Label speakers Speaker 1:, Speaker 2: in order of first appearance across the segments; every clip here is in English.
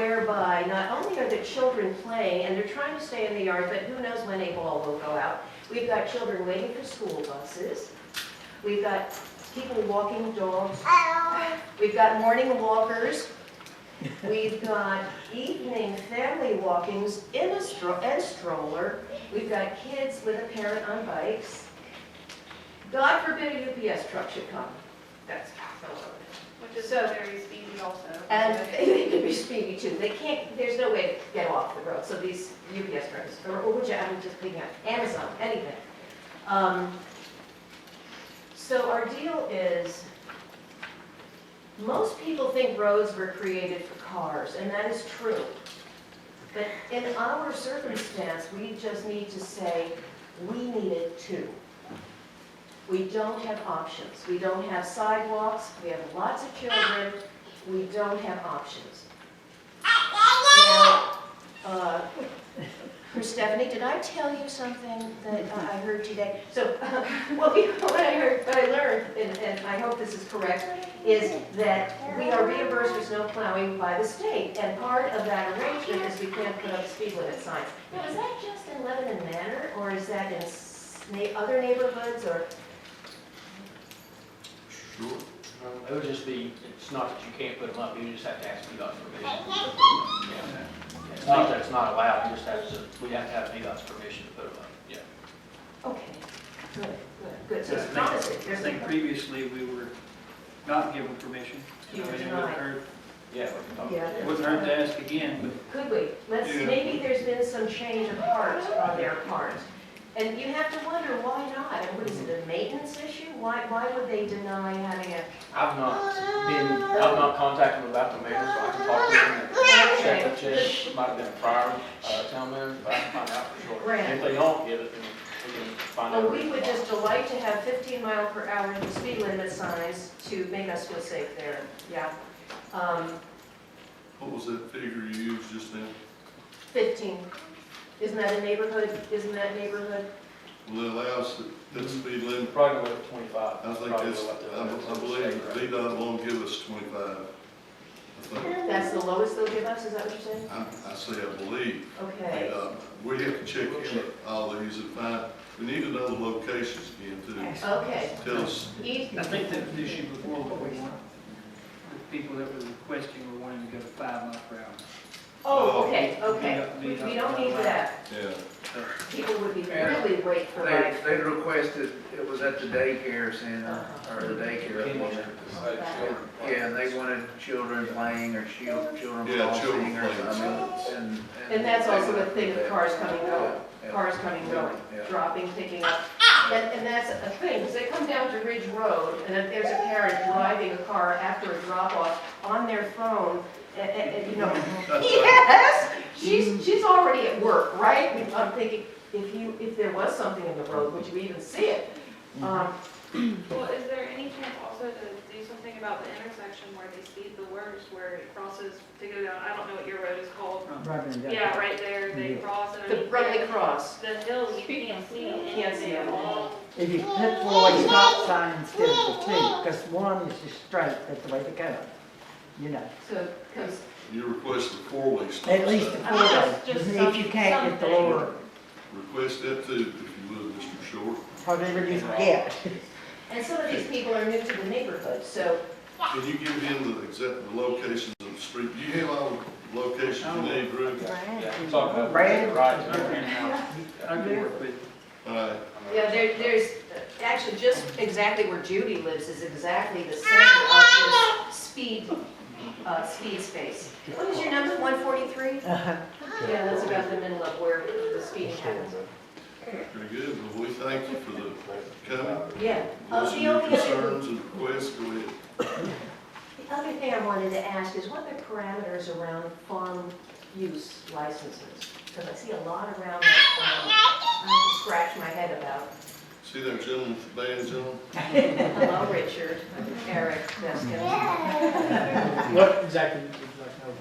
Speaker 1: whereby not only are the children playing, and they're trying to stay in the yard, but who knows when a ball will go out. We've got children waiting for school buses. We've got people walking dogs. We've got morning walkers. We've got evening family walkings in a stro, and stroller. We've got kids with a parent on bikes. God forbid a UPS truck should come. That's,
Speaker 2: Which is
Speaker 1: So-
Speaker 2: very speedy also.
Speaker 1: and
Speaker 2: Okay.
Speaker 1: they can be speedy too. They can't, there's no way to get off the road, so these UPS trucks, or or which, I'm just picking up, Amazon, anything. Um, So our deal is, most people think roads were created for cars, and that is true. But in our circumstance, we just need to say, we need it too. We don't have options. We don't have sidewalks, we have lots of children, we don't have options. Now, uh, Stephanie, did I tell you something that I I heard today? So, what we, what I heard, what I learned, and, and I hope this is correct, is that we are reimbursed for snow plowing by the state, and part of that arrangement is we can't put up speed limit signs. Now, is that just in Lebanon Manor, or is that in s- na- other neighborhoods, or,
Speaker 3: Sure.
Speaker 4: Um, It would just be, it's not that you can't put them up, you just have to ask VDOT's permission. Yeah. It's not that it's not allowed, you just have to, we have to have VDOT's permission to put them up, yeah.
Speaker 1: okay, good, good, good, so
Speaker 5: I
Speaker 1: it's
Speaker 5: think-
Speaker 1: promising.
Speaker 5: I think previously we were not given permission.
Speaker 1: You were
Speaker 5: I mean, It
Speaker 1: denied.
Speaker 5: wouldn't hurt-
Speaker 4: Yeah, we can talk.
Speaker 1: Yeah.
Speaker 5: it wouldn't hurt to ask again, but
Speaker 1: Could we? Let's,
Speaker 5: Yeah.
Speaker 1: maybe there's been some change of heart on their part. And you have to wonder, why not? And what is it, a maintenance issue? Why, why would they deny having a,
Speaker 4: I've not been, I've not contacted them about the mayor, so I can talk to them and check, check, it might have been a prior, uh, town manager, but I can find out for sure.
Speaker 1: Right.
Speaker 4: If they don't get it, then we can find out.
Speaker 1: well, we would just delight to have 15 mile per hour speed limit signs to make us feel safe there, yeah. Um,
Speaker 3: What was that figure you used just now?
Speaker 1: 15, isn't that a neighborhood, isn't that neighborhood?
Speaker 3: Well, it allows that- that speed limit,
Speaker 4: Probably go up to twenty-five.
Speaker 3: I think
Speaker 4: Probably
Speaker 3: that's,
Speaker 4: go up to-
Speaker 3: I I believe VDOT won't give us twenty-five. I think,
Speaker 1: That's the lowest they'll give us, is that what you're saying?
Speaker 3: I, I say I believe,
Speaker 1: Okay,
Speaker 3: VDOT, we have to check in all these and find, we need to know the locations again too.
Speaker 1: okay. E-
Speaker 3: Tell us,
Speaker 1: Easy.
Speaker 5: I think that the issue before was we want, the people that were requesting were wanting to go to five mile per hour.
Speaker 1: Oh, okay, okay. We we don't need that.
Speaker 3: yeah,
Speaker 1: People would be really wait for
Speaker 6: They,
Speaker 1: life.
Speaker 6: they requested, it was at the daycare center, or the daycare. Yeah, and they wanted children playing or chil- children
Speaker 3: Yeah, children
Speaker 6: crossing or
Speaker 3: playing.
Speaker 6: something, and.
Speaker 1: And that's
Speaker 6: they
Speaker 1: also
Speaker 6: wanted
Speaker 1: a
Speaker 6: to
Speaker 1: thing
Speaker 6: do
Speaker 1: of
Speaker 6: that.
Speaker 1: cars coming, going,
Speaker 6: Yeah.
Speaker 1: cars coming, going,
Speaker 6: Yeah.
Speaker 1: dropping, picking up. And, and that's a thing, because they come down to Ridge Road, and if there's a parent driving a car after a drop-off on their phone, a- a- a- you know, yes, she's, she's already at work, right? And I'm thinking, if you, if there was something in the road, would you even see it? Um,
Speaker 2: Well, is there any chance also to do something about the intersection where they speed the worst, where it crosses to go down, I don't know what your road is called. Yeah, right there, they cross and. I
Speaker 1: The
Speaker 2: mean,
Speaker 1: Brumley Cross,
Speaker 2: The hill, you can't see. it.
Speaker 1: Can't see it.
Speaker 7: If you put for a stop sign instead of the two, because one is just straight, that's the way to go, you know.
Speaker 1: so, because
Speaker 3: you requested four-way stop
Speaker 7: At least the
Speaker 3: sign.
Speaker 7: four way, if you can't, it's the lower,
Speaker 3: Request that too, if you would, Mr. Short.
Speaker 7: whatever you can get.
Speaker 1: And some of these people are new to the neighborhood, so
Speaker 3: Can you give him the exact, the locations of the street? Do you have all the locations
Speaker 7: Oh.
Speaker 3: you need, Drew?
Speaker 4: Yeah, talk about.
Speaker 7: Brad.
Speaker 5: I
Speaker 4: Right.
Speaker 5: can- I can work with,
Speaker 3: All right,
Speaker 1: Yeah, there, there's, actually, just exactly where Judy lives is exactly the center of this speed, uh, speed space. What is your number, one forty-three?
Speaker 7: Uh-huh.
Speaker 1: Yeah, that's about the middle of where the speeding happens.
Speaker 3: very good. Well, we thank you for the coming.
Speaker 1: Yeah. Uh,
Speaker 3: Listen to
Speaker 1: the
Speaker 3: your
Speaker 1: only other,
Speaker 3: concerns and requests, go ahead.
Speaker 1: the other thing I wanted to ask is what are the parameters around farm use licenses? Because I see a lot around that, um, I have to scratch my head about.
Speaker 3: See that gentleman, with the band gentleman?
Speaker 1: Hello, Richard, Eric, Jessica.
Speaker 8: What exactly would you like to know?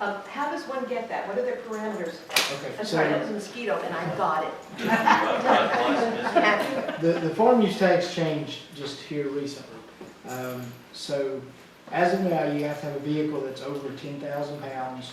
Speaker 1: Uh, how does one get that? What are their parameters?
Speaker 8: Okay,
Speaker 1: I'm
Speaker 8: so-
Speaker 1: sorry, that was a mosquito, and I got it.
Speaker 8: The, the farm use tax changed just here recently. Um, so as of now, you have to have a vehicle that's over ten thousand pounds